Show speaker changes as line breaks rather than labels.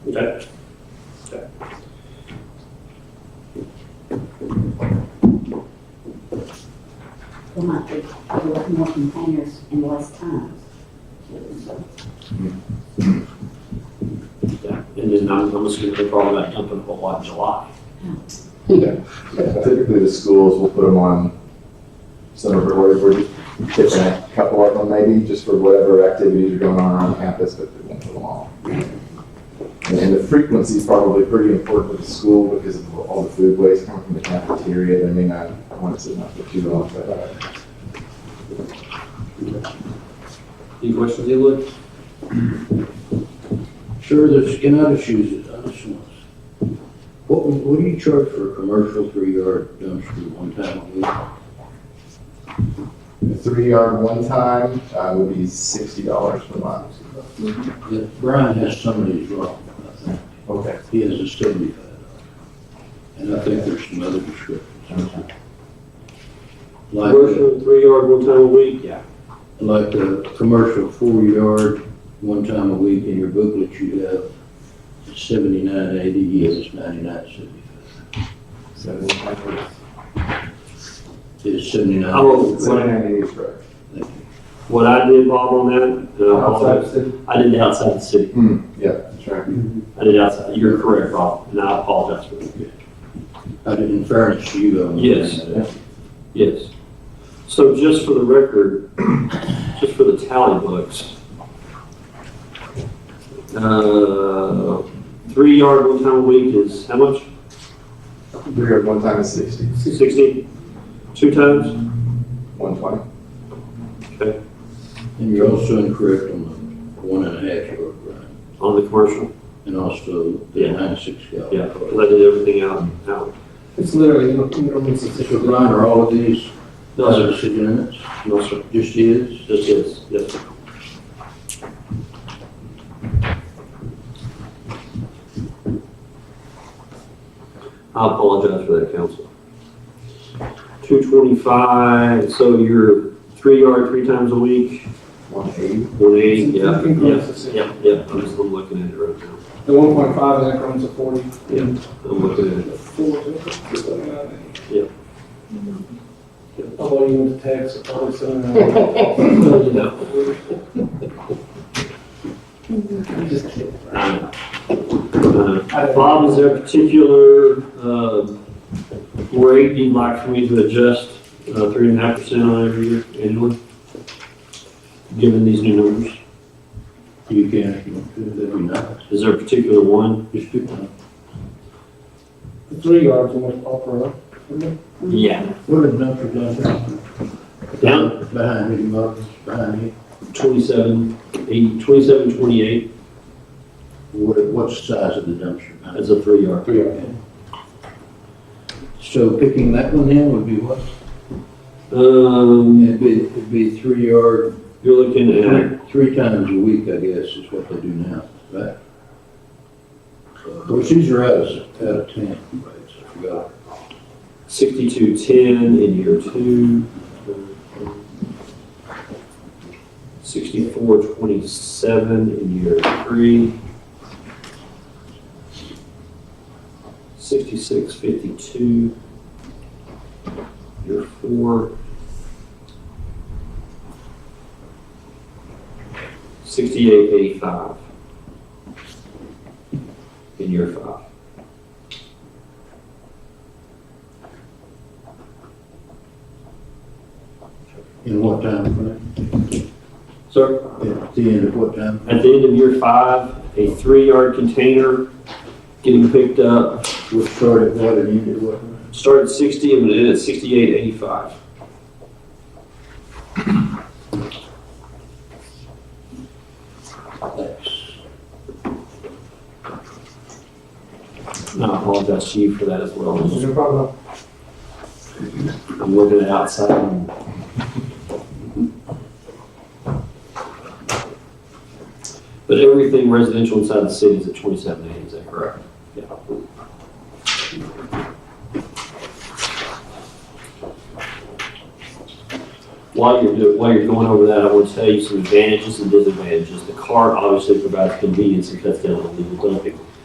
Okay. Okay.
There might be a lot more containers in less time.
Yeah. And then I'm, I'm assuming they're probably not dumping a whole lot in July.
Typically, the schools will put them on summer or whatever, different, couple of them maybe, just for whatever activities are going on on campus, but they won't put them all. And- And the frequency is probably pretty important for the school because of all the food waste coming from the cafeteria. They may not want it sitting up for too long, but uh,
Any questions, Evelyn?
Sure, there's, can I just use it, I just want. What, what do you charge for a commercial three-yard dumpster one time a week?
a three yard one time, uh, would be sixty dollars per month.
Yeah, Brian has some of these wrong, I think.
Okay.
He has a seventy-five dollar. And I think there's some other descriptions. Like, the-
Commercial, three yard, one time a week? Yeah.
like the commercial four-yard, one time a week in your booklet, you have seventy-nine eighty, yes, ninety-nine seventy-five.
So, one
It's seventy-nine.
Oh,
ninety is correct.
Thank you.
What I did, Bob, on that, uh, Bob, I did it outside the city.
Hmm, yeah, that's right.
I did it outside, you're correct, Bob, and I apologize for that.
I did, in fairness to you, I'm.
Yes. Yes. So just for the record, just for the tally books, uh, three yard, one time a week is how much?
Three yard one time is sixty.
Sixty? Two times?
One twenty.
And you're also incorrect on the one and a half yard run,
On the commercial?
and also
Yeah.
the ninety-six gallon.
Yeah, because I did everything out, out.
It's literally, you don't, you don't need to.
So Brian, are all of these
No,
other
sir.
city limits,
No, sir.
just his?
Just yes, yes. sir. I apologize for that, council. Two twenty-five, so you're three yard three times a week,
One eighty.
one eighty, yeah,
Increments
yeah,
of six.
yeah, yeah, I'm just, I'm looking at it right now.
The one point five is increments of forty.
Yeah. I'm looking at it.
Four, six, seven, nine, eight.
Yeah.
Yeah, Although you went to tax, probably seven, nine, eight.
No,
Oh, I'm just kidding.
I know. Uh,
I don't-
Bob, is there a particular um, rate you'd like for me to adjust uh, three and a half percent on every year annually? Given these new numbers,
You can, if you want to, that'd be nice.
is there a particular one?
Just pick one.
The Three yards in the upper, isn't
Yeah.
What are the numbers down there?
Down?
Behind me, Marcus, behind me.
Twenty-seven, eight, twenty-seven, twenty-eight,
What, what's the size of the dumpster?
that's a three yard.
Three yard.
Okay. So picking that one in would be what?
Um,
It'd be, it'd be three yard,
you're looking at,
three, three times a week, I guess, is what they do now, right? Of course, these are out of, out of ten, right, so I forgot.
sixty-two, ten in year two. Sixty-four, twenty-seven in year three. Sixty-six, fifty-two. Year four. Sixty-eight, eighty-five. In year five.
In what time frame?
Sir?
At the end of what time?
At the end of year five, a three-yard container getting picked up,
We'll start at what and end at what?
started sixty and would end at sixty-eight eighty-five.
Thanks.
And I apologize to you for that as well.
it? No problem.
I'm looking at outside. and- But everything residential inside the city is at twenty-seven eighty, is that correct? Yeah. While you're, do- while you're going over that, I want to tell you some advantages and disadvantages. The cart obviously provides convenience and cuts down on legal dumping.